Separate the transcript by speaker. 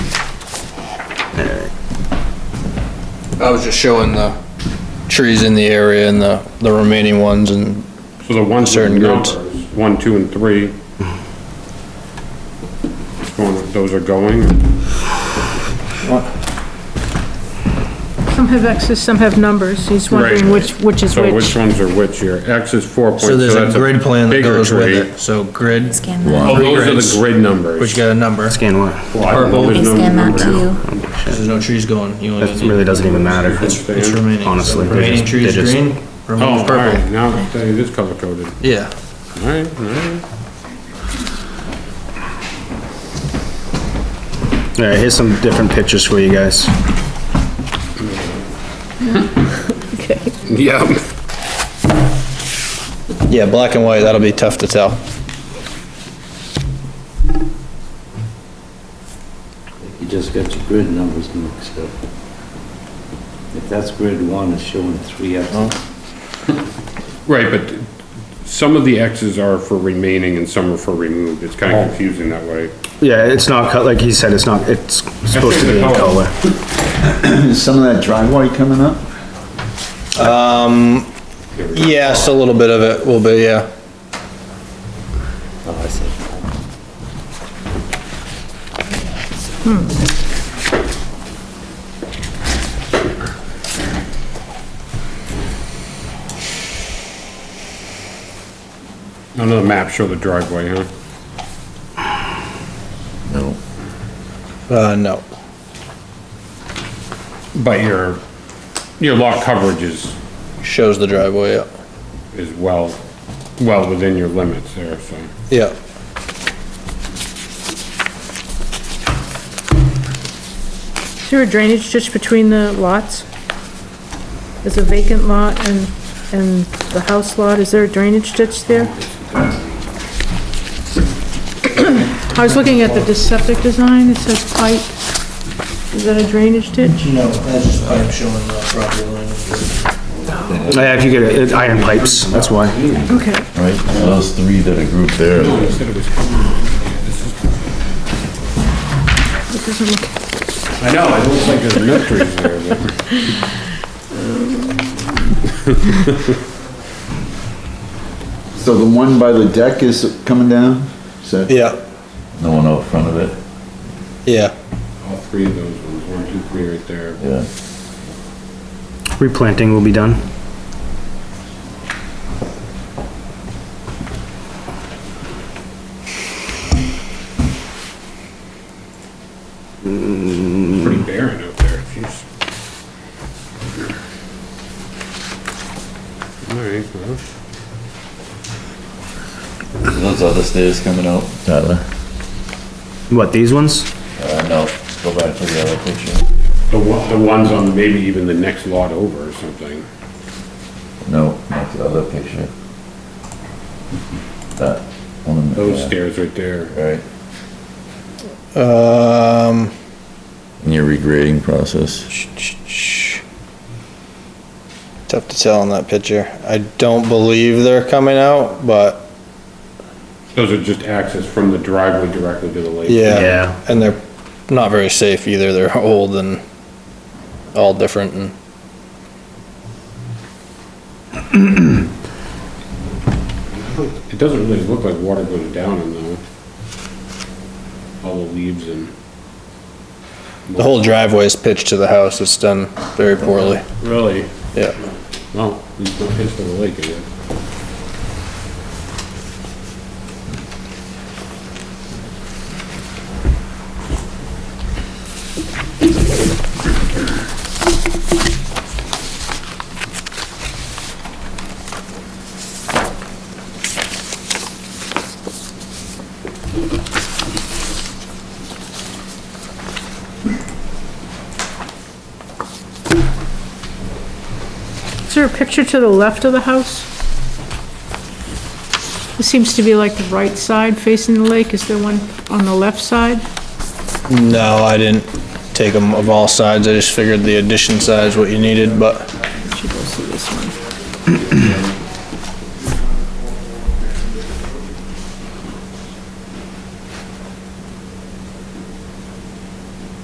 Speaker 1: I was just showing the trees in the area and the, the remaining ones and,
Speaker 2: So the ones with
Speaker 1: Certain
Speaker 2: numbers,
Speaker 1: goods.
Speaker 2: one, two, and three. Going- Those are going,
Speaker 3: Some have X's, some have numbers. He's wondering
Speaker 2: Right.
Speaker 3: which, which is
Speaker 2: so which
Speaker 3: which.
Speaker 2: ones are which here? X is four point.
Speaker 1: so there's a
Speaker 2: that's
Speaker 1: grid plan that
Speaker 2: bigger
Speaker 1: goes with
Speaker 2: tree.
Speaker 1: it, so grid,
Speaker 4: Scan that.
Speaker 2: Oh, those are
Speaker 1: grids.
Speaker 2: the grid numbers.
Speaker 1: which got a number,
Speaker 5: Scan what?
Speaker 2: Purple.
Speaker 4: They scan that to you.
Speaker 1: there's no trees going, you only.
Speaker 5: That really doesn't even matter.
Speaker 1: It's it's remaining.
Speaker 5: Honestly, they're
Speaker 1: Remaining
Speaker 5: just-
Speaker 1: trees
Speaker 5: they're just-
Speaker 1: green,
Speaker 2: Oh, all
Speaker 1: remaining
Speaker 2: right,
Speaker 1: purple,
Speaker 2: now it is color coded.
Speaker 1: yeah.
Speaker 2: All right, all right.
Speaker 5: Alright, here's some different pictures for you guys.
Speaker 3: Okay.
Speaker 2: Yeah.
Speaker 1: Yeah, black and white, that'll be tough to tell.
Speaker 6: You just got your grid numbers mixed up. If that's grid one, it's showing three X's.
Speaker 2: Right, but some of the X's are for remaining and some are for removed. It's
Speaker 1: Oh.
Speaker 2: kind of confusing that way.
Speaker 5: Yeah, it's not cut, like he said, it's not, it's supposed to be in
Speaker 2: the color.
Speaker 5: color.
Speaker 7: Is some of that driveway coming up?
Speaker 1: Yes, a little bit of it will be, yeah.
Speaker 6: Oh, I see.
Speaker 2: None of the maps show the driveway, huh?
Speaker 1: No. Uh, no.
Speaker 2: But your, your lot coverage is,
Speaker 1: Shows the driveway, yeah.
Speaker 2: is well, well within your limits there, so.
Speaker 1: Yeah.
Speaker 3: Is there a drainage ditch between the lots? There's a vacant lot and, and the house lot. Is there a drainage ditch there? I was looking at the de- septic design. It says pipe. Is that a drainage ditch?
Speaker 1: No, that's just pipe showing the property line.
Speaker 5: Yeah, if you get it, iron pipes, that's why.
Speaker 3: Okay.
Speaker 8: right? Those three that are grouped there.
Speaker 3: It doesn't look,
Speaker 2: I know, it looks like there's no trees there, but.
Speaker 7: So the one by the deck is coming down? Is that-
Speaker 1: Yeah,
Speaker 8: No one out front of it,
Speaker 1: yeah.
Speaker 2: All three of those ones, one, two, three right there.
Speaker 8: yeah.
Speaker 5: Replanting will be done.
Speaker 2: It's pretty barren out there, jeez. All right, well,
Speaker 8: Those other stairs coming out, Tyler.
Speaker 5: What, these ones?
Speaker 8: Uh, no, go back to the other picture.
Speaker 2: the one, the ones on maybe even the next lot over or something.
Speaker 8: No, not the other picture. That one. in the-
Speaker 2: Those
Speaker 8: yeah,
Speaker 2: stairs right there.
Speaker 8: Right,
Speaker 1: Um,
Speaker 8: in your regrading process.
Speaker 1: tough to tell on that picture. I don't believe they're coming out, but
Speaker 2: Those are just access from the driveway directly to the lake.
Speaker 1: yeah.
Speaker 5: Yeah.
Speaker 1: And they're not very safe either. They're old and all different and
Speaker 2: It doesn't really look like water goes down in though. All the leaves and.
Speaker 1: the whole driveway is pitched to the house. It's done very poorly.
Speaker 2: Really?
Speaker 1: Yeah.
Speaker 2: Well, it's not pitched to the lake, is it?
Speaker 3: is there a picture to the left of the house? It seems to be like the right side facing the lake. Is there one on the left side?
Speaker 1: No, I didn't take them of all sides. I just figured the addition side's what you needed, but
Speaker 3: Should go see this one.